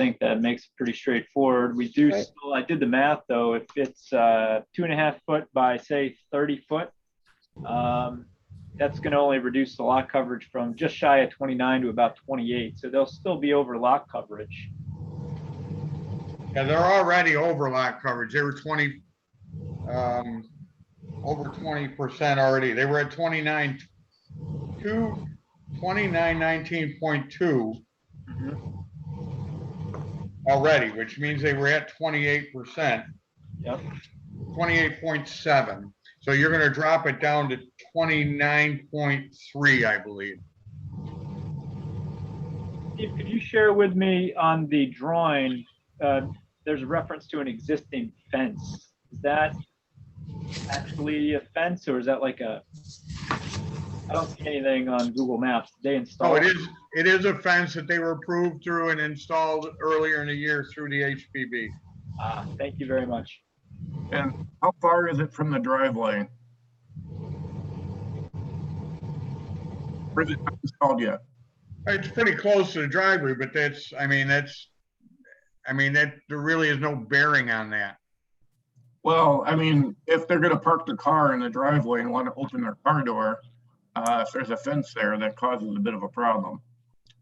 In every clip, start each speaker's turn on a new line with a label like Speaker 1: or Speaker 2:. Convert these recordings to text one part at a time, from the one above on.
Speaker 1: think that makes it pretty straightforward. We do
Speaker 2: Right.
Speaker 1: still, I did the math though, if it's uh, two and a half foot by say 30 foot, um, that's going to only reduce the lot coverage from just shy of 29 to about 28. So they'll still be over lot coverage.
Speaker 3: Yeah, they're already over lot coverage. They were twenty, um, over twenty percent already. They were at twenty-nine, two, twenty-nine nineteen point two
Speaker 1: Mhm.
Speaker 3: already, which means they were at twenty-eight percent.
Speaker 1: Yep.
Speaker 3: Twenty-eight point seven. So you're gonna drop it down to twenty-nine point three, I believe.
Speaker 1: Steve, could you share with me on the drawing, uh, there's a reference to an existing fence. Is that actually a fence or is that like a, I don't see anything on Google Maps. Did They
Speaker 3: So
Speaker 1: install.
Speaker 3: Oh, it is, it is a fence that they were approved through and installed earlier in the year through the HPB.
Speaker 1: Ah, Thank you very much.
Speaker 4: And how far is it from the driveway? Or is it not installed yet?
Speaker 3: It's pretty close to the driveway, but that's, I mean, that's, I mean, that, there really is no bearing on that.
Speaker 4: Well, I mean, if they're gonna park the car in the driveway and want to open their car door, uh, if there's a fence there, that causes a bit of a problem.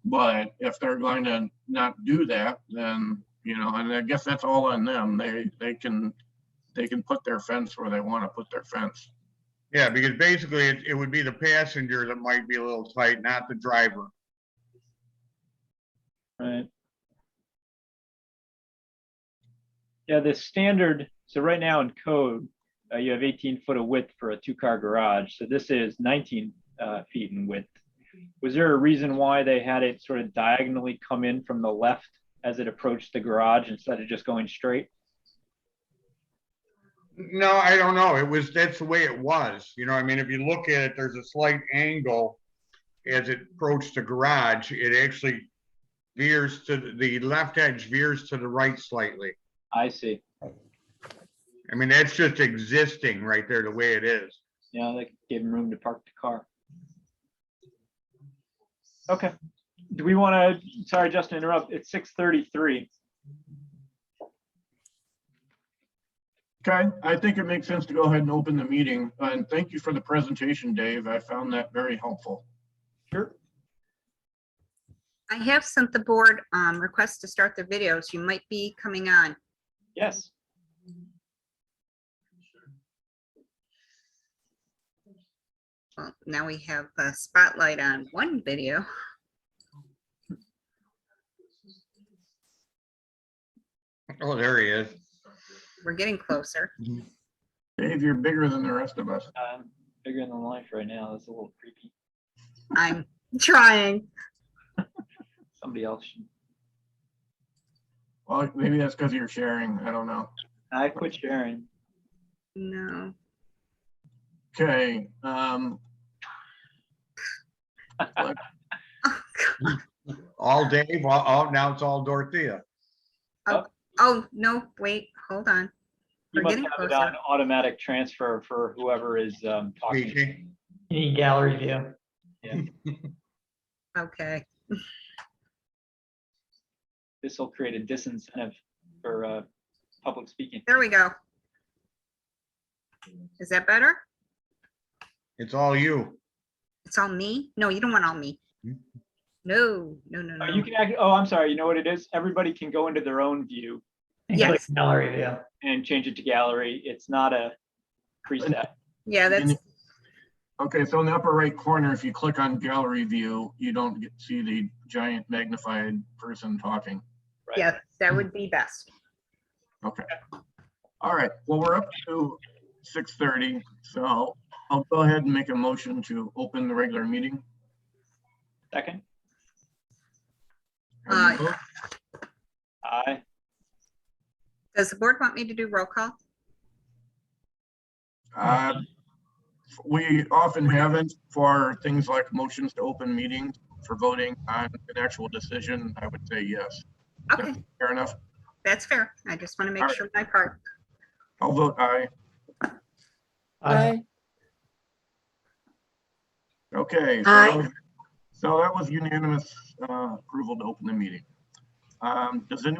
Speaker 4: But if they're going to not do that, then, you know, and I guess that's all on them. They, they can, they can put their fence where they want to put their fence.
Speaker 3: Yeah, because basically it, it would be the passenger that might be a little tight, not the driver.
Speaker 1: Right. Yeah, the standard, so right now in code, uh, you have eighteen foot of width for a two-car garage, so this is nineteen, uh, feet in width. Was there a reason why they had it sort of diagonally come in from the left as it approached the garage instead of just going straight?
Speaker 3: No, I don't know. It was, that's the way it was. You know, I mean, if you look at it, there's a slight angle as it approached the garage. It actually veers to, the- the left edge veers to the right slightly.
Speaker 1: I see.
Speaker 3: I mean, that's just existing right there, the way it is.
Speaker 1: Yeah, that gave him room to park the car. Okay, do we want to, sorry, Justin, interrupt, it's six thirty-three.
Speaker 4: Okay, I think it makes sense to go ahead and open the meeting. And thank you for the presentation, Dave. I found that very helpful.
Speaker 1: Sure.
Speaker 5: I have sent the board um, requests to start their videos. You might be coming on.
Speaker 1: Yes.
Speaker 5: Well, Now we have a spotlight on one video.
Speaker 3: Oh, there he is.
Speaker 5: We're getting closer.
Speaker 4: Dave, you're bigger than the rest of us.
Speaker 1: Um, bigger than life right now. That's a little creepy.
Speaker 5: I'm trying.
Speaker 1: Somebody else. should-
Speaker 4: Well, maybe that's because you're sharing. I don't know.
Speaker 1: I quit sharing.
Speaker 5: No.
Speaker 4: Okay, um,
Speaker 3: All Dave, all, all, now it's all Dorothea.
Speaker 5: Oh, no, wait, hold on.
Speaker 1: You
Speaker 5: We're
Speaker 1: must
Speaker 5: getting
Speaker 1: have it
Speaker 5: closer.
Speaker 1: on automatic transfer for whoever is um, talking.
Speaker 3: Speaking.
Speaker 6: You need gallery view.
Speaker 5: Okay.
Speaker 1: This will create a disincentive for uh, public speaking.
Speaker 5: There we go. Is that better?
Speaker 3: It's all you.
Speaker 5: It's all me? No, you don't want all me. No, no, no,
Speaker 1: Oh, you
Speaker 5: no.
Speaker 1: can act, oh, I'm sorry. You know what it is? Everybody can go into their own view
Speaker 6: And click
Speaker 5: Yes.
Speaker 6: Gallery view.
Speaker 1: and change it to gallery. It's not a preset.
Speaker 5: Yeah, that's,
Speaker 4: okay, so in the upper right corner, if you click on gallery view, you don't get, see the giant magnified person talking.
Speaker 1: Right.
Speaker 5: yeah, that would be best.
Speaker 4: All right, well, we're up to six thirty, so I'll go ahead and make a motion to open the regular meeting.
Speaker 1: Second,
Speaker 4: Have you
Speaker 5: Aye.
Speaker 4: vote?
Speaker 1: I,
Speaker 5: Does the board want me to do roll call?
Speaker 4: Uh, We often haven't for things like motions to open meetings for voting on an actual decision. I would say yes.
Speaker 5: Okay,
Speaker 4: Fair enough.
Speaker 5: that's fair. I just want to make
Speaker 4: Alright.
Speaker 5: sure my part.
Speaker 4: I'll vote aye.
Speaker 6: Aye.
Speaker 4: Okay. so-
Speaker 5: Aye.
Speaker 4: So that was unanimous uh, approval to open the meeting. Um, does anyone